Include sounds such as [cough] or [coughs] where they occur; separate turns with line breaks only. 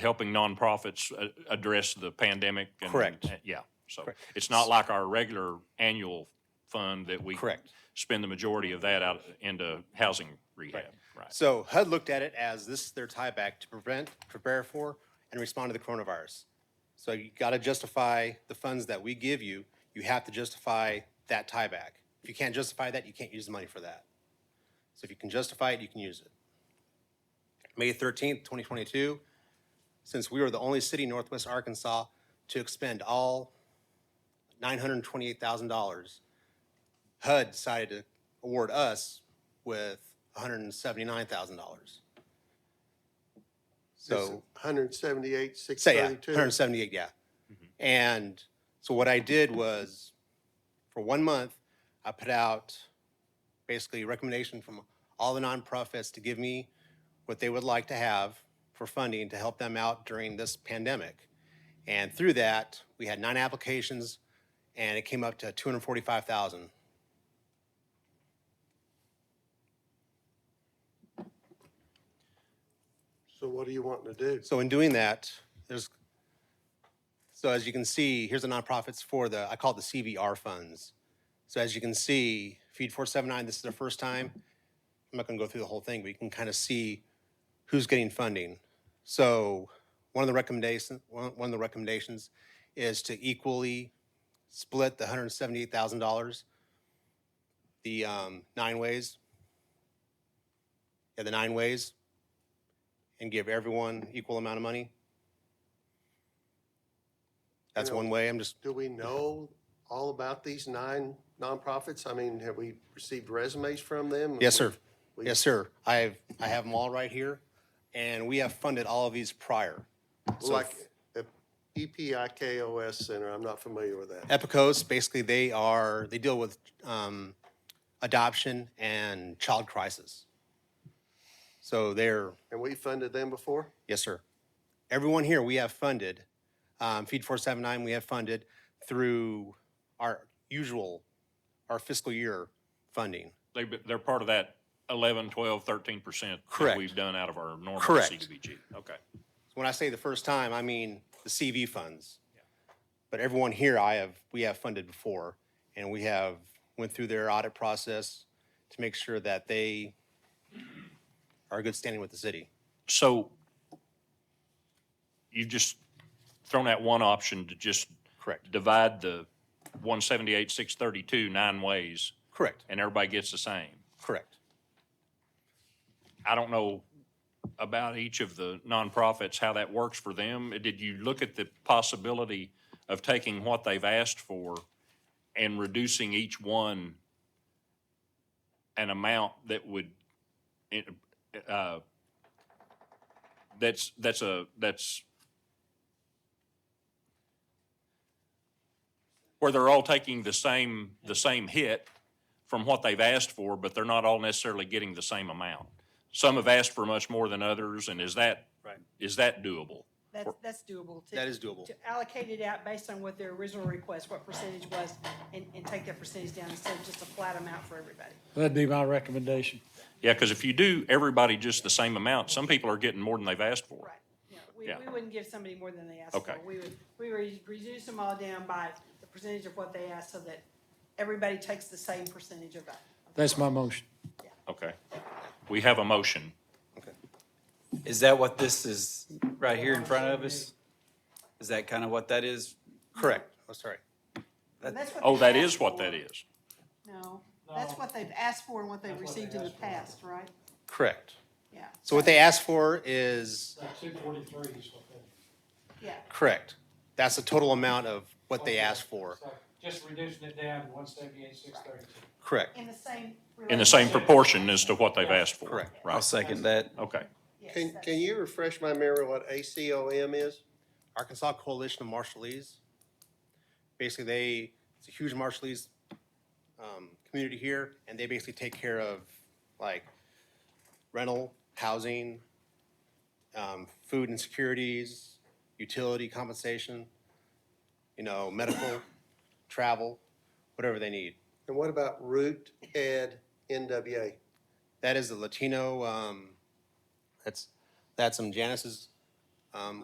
helping nonprofits uh, address the pandemic. and-
Correct.
uh, Yeah, so
Correct.
it's not like our regular annual fund that we
Correct.
spend the majority of that out into housing rehab, right?
So HUD looked at it as this is their tieback to prevent, prepare for, and respond to the coronavirus. So you got to justify the funds that we give you. You have to justify that tieback. If you can't justify that, you can't use the money for that. So if you can justify it, you can use it. May 13th, 2022, since we were the only city in Northwest Arkansas to expend all $928,000 HUD decided to award us with $179,000. So,
Hundred seventy-eight, six
say, yeah,
thirty-two.
178, yeah. And so what I did was, for one month, I put out basically a recommendation from all the nonprofits to give me what they would like to have for funding to help them out during this pandemic. And through that, we had nine applications, and it came up to 245,000.
So what are you wanting to do?
So in doing that, there's, so as you can see, here's the nonprofits for the, I call it the CVR funds. So as you can see, Feed 479, this is their first time. I'm not going to go through the whole thing, but you can kind of see who's getting funding. So one of the recommendations, one one of the recommendations is to equally split the $178,000 the um, nine ways. Yeah, the nine ways and give everyone equal amount of money? That's
know-
one way, I'm just,
Do we know all about these nine nonprofits? I mean, have we received resumes from them?
yes, sir.
We-
Yes, sir. I have, I have them all right here, and we have funded all of these prior. So
Like uh, EPIKOS Center, I'm not familiar with that.
Epicos, basically, they are, they deal with um, adoption and child crisis. So they're,
And we funded them before?
yes, sir. Everyone here, we have funded. Um, Feed 479, we have funded through our usual, our fiscal year funding.
They, they're part of that 11, 12, 13% that
Correct.
we've done out of our normal
Correct.
CDBG. Okay.
When I say the first time, I mean the CV funds. But everyone here, I have, we have funded before, and we have went through their audit process to make sure that they are good standing with the city.
So you've just thrown out one option to just
Correct.
divide the 178, 632 nine ways,
Correct.
and everybody gets the same.
Correct.
I don't know about each of the nonprofits, how that works for them. Did you look at the possibility of taking what they've asked for and reducing each one an amount that would, uh, that's, that's a, that's where they're all taking the same, the same hit from what they've asked for, but they're not all necessarily getting the same amount. Some have asked for much more than others, and is that,
Right.
is that doable?
That's, that's doable. to-
That is doable.
To allocate it out based on what their original request, what percentage was, and, and take that percentage down instead of just a flat amount for everybody.
That'd be my recommendation.
Yeah, because if you do everybody just the same amount, some people are getting more than they've asked for.
Right. Yeah, we,
Yeah.
we wouldn't give somebody more than they asked for.
Okay.
We would, we would reduce them all down by the percentage of what they asked so that everybody takes the same percentage of that.
That's my motion.
Okay. We have a motion.
Is that what this is right here in front of us? Is that kind of what that is?
Correct. Oh, sorry.
And that's what
Oh,
they've
that
asked
is what that
for.
is.
No, that's what they've asked for and what they've received in the past, right?
Correct.
Yeah.
So what they asked for is,
Two forty-three is what that
Yeah,
correct. That's the total amount of what they asked for.
Just reducing it down to one seventy-eight, six thirty-two.
Correct.
in the same.
In the same
relationship.
proportion as to what they've asked for.
Correct.
I'll
Right.
second that.
Okay.
Yes,
Can,
that's-
can you refresh my memory what ACOM is?
Arkansas Coalition of Marshallese. Basically, they, it's a huge Marshallese um, community here, and they basically take care of like rental, housing, um, food insecurities, utility compensation, you know, medical, [coughs] travel, whatever they need.
And what about Root Ed NWA?
That is the Latino, um, that's, that's some Janice's um,